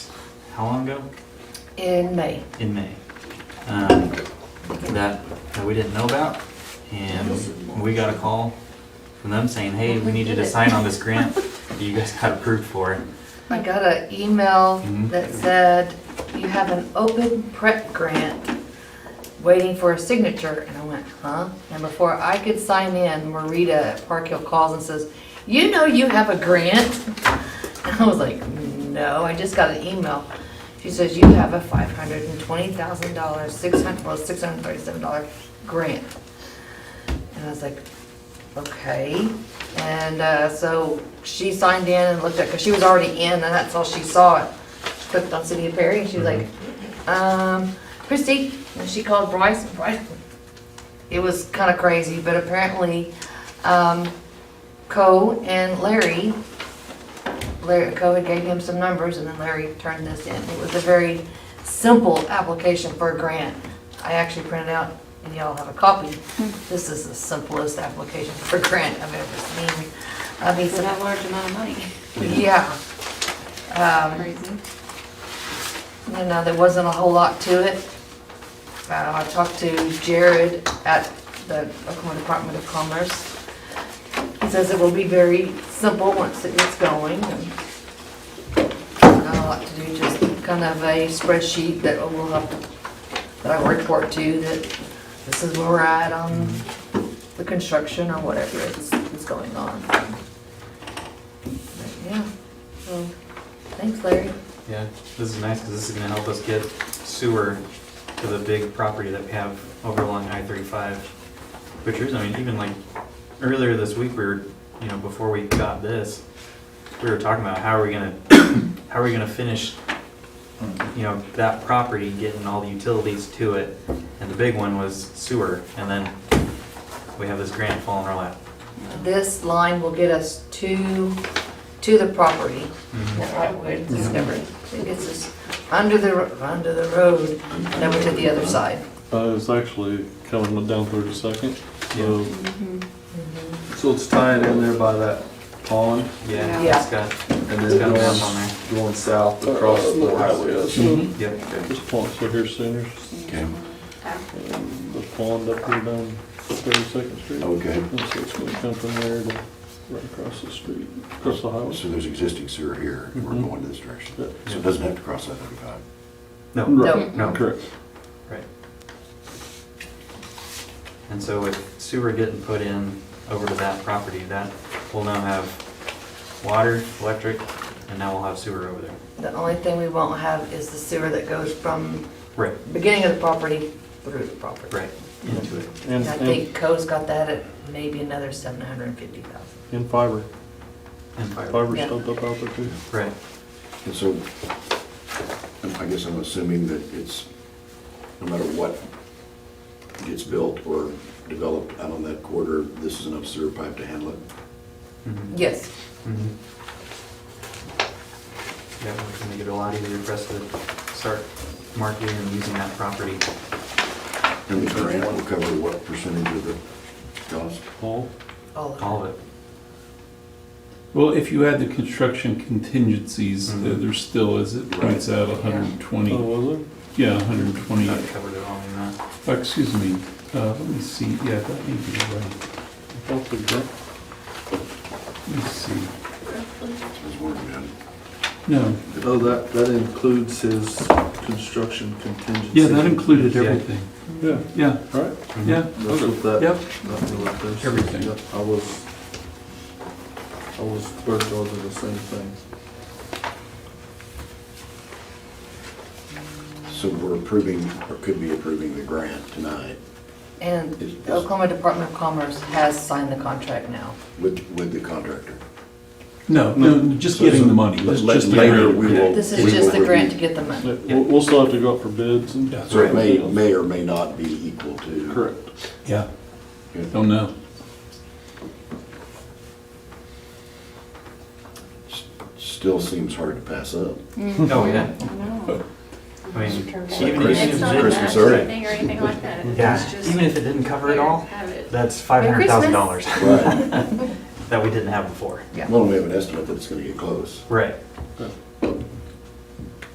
how long ago? in May. In May. Um, That, that we didn't know about, and we got a call from them saying, hey, we need you to sign on this grant that you guys got approved for. I got an email Mhm. that said, you have an open prep grant waiting for a signature, and I went, huh? And before I could sign in, Marita at Park Hill calls and says, you know you have a grant? And I was like, no, I just got an email. She says, you have a five hundred and twenty thousand dollar, six hundred, well, six hundred and thirty-seven dollar grant. And I was like, okay. And uh, so she signed in and looked at, because she was already in, and that's all she saw. it. She clicked on City of Perry, and she was like, um, Christie, and she called Bryce, and Bryce, it was kind of crazy, but apparently, um, Co and Larry, Larry, Co had gave him some numbers, and then Larry turned this in. It was a very simple application for a grant. I actually printed out, and y'all have a copy. This is the simplest application for a grant I've ever seen. I mean, It's so- a large amount of money. yeah. Um, Crazy. you know, there wasn't a whole lot to it. Uh, I talked to Jared at the Oklahoma Department of Commerce. He says it will be very simple once it gets going. and Not a lot to do, just kind of a spreadsheet that we'll have, that I will report to, that this is where we're at on the construction or whatever is, is going on. But, Yeah, so, thanks Larry. Yeah, this is nice because this is gonna help us get sewer to the big property that we have over along I thirty-five. Which is, I mean, even like earlier this week, we were, you know, before we got this, we were talking about how are we gonna, how are we gonna finish, you know, that property, getting all the utilities to it. And the big one was sewer, and then we have this grant fall in our lap. This line will get us to, to the property. That right way it's discovered. It gets us under the, ro- under the road and over to the other side. Uh, it's actually coming down thirty-second, so, so it's tying in there by that pond Yeah, Yeah. it's got, And it's got then a map going, on going south across Uh, the highway. So there. Yep. This pond, so here's Sooners, Okay, um, the pond up here down thirty-second street. Oh. okay. And so it's gonna come from there to right across the street, across the highway. Oh, So there's existing sewer here, and we're Mhm. going to this direction. Yeah. So it doesn't have to cross I thirty-five. No, Right, No. Correct. Right. And so with sewer getting put in over to that property, that will now have water, electric, and now we'll have sewer over there. The only thing we won't have is the sewer that goes from Right, beginning of the property through the property. right, into it. And, And I and, think Co's got that at maybe another seven hundred and fifty thousand. and fiber, And fiber. fiber Yeah. stubbed up out there too. Right, And so, um, I guess I'm assuming that it's, no matter what gets built or developed out on that corridor, this is enough sewer pipe to handle it. mhm, Yes, mhm. Yeah, we can make it a lot easier for us to start marketing and using that property. And the grant will cover what percentage of the cost? Oh. Paul? all of All of it. Well, if you add the construction contingencies, Mhm. there there still is, it points out Oh, 120, was it? Mm-hmm. yeah, 120, That covered it all in that. Oh, uh, excuse me, uh, let me see, yeah, that may be right, I thought the grant, let me see, Is where we're at. no, Oh, that, that includes his construction contingency. yeah, Mm-hmm. that included everything, Mm-hmm. yeah, yeah, All right. yeah, That's what that. yep, that's what that is. Everything. Yep, I was, I was burnt over the same thing. So we're approving, or could be approving the grant tonight And the Oklahoma Department of Commerce has signed the contract now. with, with the contractor. no, no, just getting the money, that's just the Later, grant. we will- This we is just will the grant to review. get the money. Yeah, we'll, we'll still have to go out for bids and. That's So it may, may or may not be equal to. Correct. Yeah, Yeah. don't know, S- Still seems hard to pass up. Oh, yeah. I know. I mean, It's even if like Christmas- it's It's not just- a Christmas match early. thing or anything like that. It's Yeah, just even if it didn't cover it here, all, Have it. that's five hundred thousand dollars Right. that we didn't have before. Well, we have an estimate that it's gonna get close. Right. Yeah.